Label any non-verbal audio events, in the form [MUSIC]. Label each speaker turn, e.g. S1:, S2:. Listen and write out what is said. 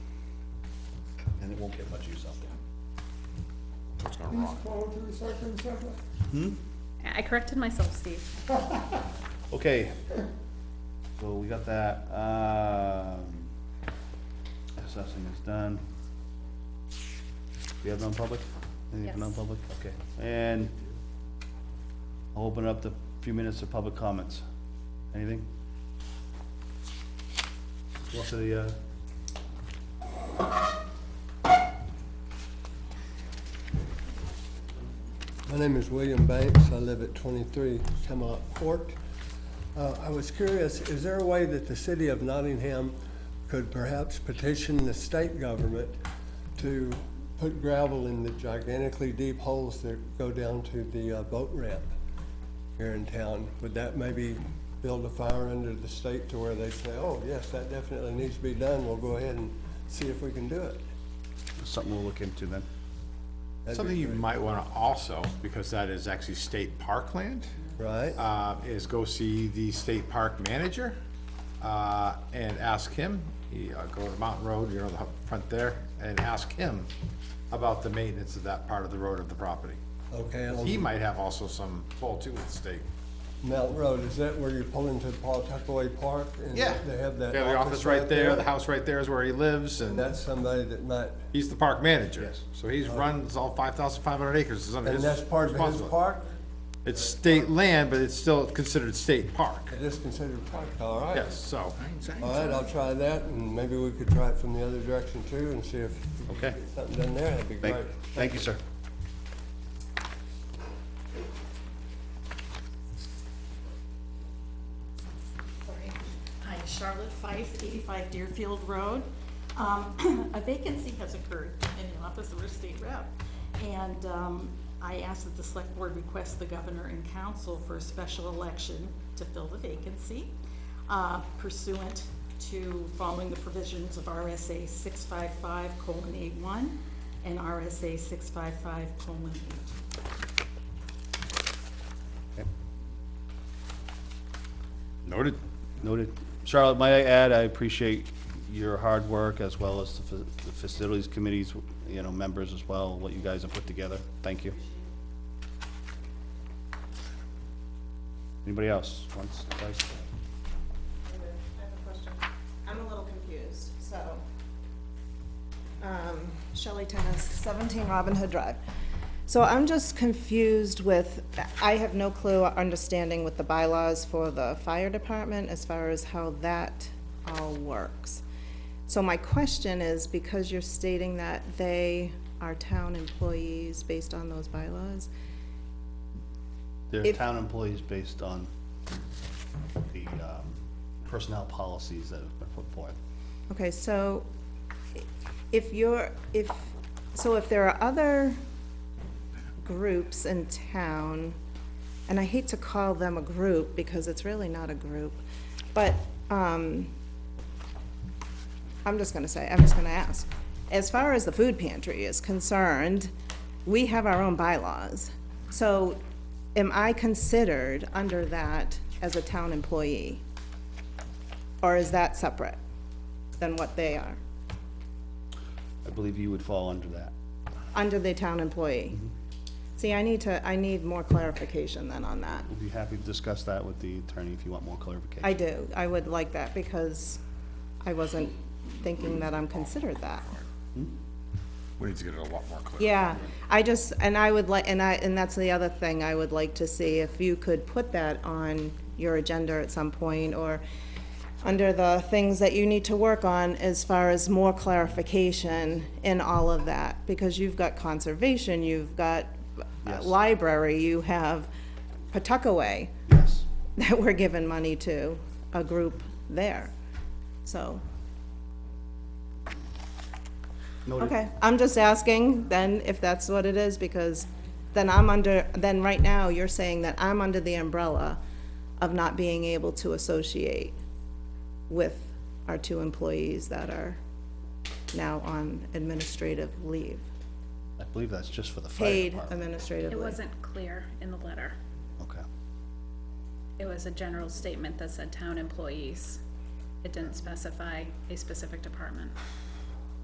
S1: and it won't get much use out there. It's gonna
S2: Please
S1: rot.
S2: call to recycling center.
S3: I corrected myself, Steve.
S1: Okay, so we got that, um, assessing is done. We have non-public? Anything for
S3: Yes.
S1: non-public? Okay, and I'll open up the few minutes of public comments. Anything? What's the, uh?
S4: My name is William Banks. I live at 23 Camelot Court. Uh, I was curious, is there a way that the city of Nottingham could perhaps petition the state government to put gravel in the gigantically deep holes that go down to the uh, boat ramp here in town? Would that maybe build a fire under the state to where they say, oh, yes, that definitely needs to be done. We'll go ahead and see if we can do it.
S1: Something we'll look into then.
S4: That'd be
S5: Something you
S4: great.
S5: might wanna also, because that is actually state parkland,
S4: Right?
S5: uh, is go see the state park manager, uh, and ask him, he, uh, go to Mountain Road, you know, the hu- front there, and ask him about the maintenance of that part of the road of the property.
S4: Okay. I'll-
S5: He might have also some pull too with the state.
S4: Mount Road, is that where you pull into Paul Tuckaway Park? and
S5: Yeah.
S4: They have that
S5: Yeah, the office right there, the house right there is where he lives,
S4: And
S5: and
S4: that's somebody that might,
S5: he's the park manager.
S1: Yes.
S5: So he's runs all five thousand five hundred acres, is under
S4: and
S5: his
S4: that's part of his
S5: responsibility.
S4: park?
S5: It's state land, but it's still considered state park.
S4: It is considered park, all right.
S5: Yes, so,
S4: All right, I'll try that, and maybe we could try it from the other direction too, and see if we
S1: Okay.
S4: can get something done there, that'd be
S1: Thank,
S4: great.
S1: thank you, sir.
S6: Sorry. Hi, Charlotte Fife, eighty-five Deerfield Road. Um, [CLEARS THROAT] a vacancy has occurred in the office of our state rep. And, um, I asked that the select board request the governor and council for a special election to fill the vacancy uh, pursuant to following the provisions of RSA six five five colon eight one and RSA six five five colon eight.
S1: Noted. Noted. Charlotte, might I add, I appreciate your hard work as well as the fa- the facilities committees, you know, members as well, what you guys have put together. Thank you. Anybody else? Once, twice?
S7: I have a question. I'm a little confused, so. Um, Shelley Tennis, seventeen Robin Hood Drive. So I'm just confused with, I have no clue or understanding with the bylaws for the fire department as far as how that all works. So my question is, because you're stating that they are town employees based on those bylaws,
S1: They're
S7: If-
S1: town employees based on the um, personnel policies that have been put forth.
S7: Okay, so i- if you're, if, so if there are other groups in town, and I hate to call them a group because it's really not a group, but, um, I'm just gonna say, I'm just gonna ask. As far as the food pantry is concerned, we have our own bylaws. So am I considered under that as a town employee? Or is that separate than what they are,
S1: I believe you would fall under that.
S7: under the town employee? See, I need to, I need more clarification then on that.
S1: We'll be happy to discuss that with the attorney if you want more clarification.
S7: I do, I would like that because I wasn't thinking that I'm considered that.
S5: Hmm? we need to get it a lot more clear.
S7: Yeah, I just, and I would like, and I, and that's the other thing I would like to see, if you could put that on your agenda at some point, or under the things that you need to work on as far as more clarification in all of that, because you've got conservation, you've got uh,
S1: Yes.
S7: library, you have Pawtuckaway
S1: Yes.
S7: [LAUGHS] that we're giving money to, a group there, so.
S1: Noted.
S7: Okay, I'm just asking then if that's what it is, because then I'm under, then right now, you're saying that I'm under the umbrella of not being able to associate with our two employees that are now on administrative leave,
S1: I believe that's just for the fire
S7: paid
S1: department.
S7: administrative
S3: It
S7: leave.
S3: wasn't clear in the letter.
S1: Okay.
S3: It was a general statement that said town employees. It didn't specify a specific department.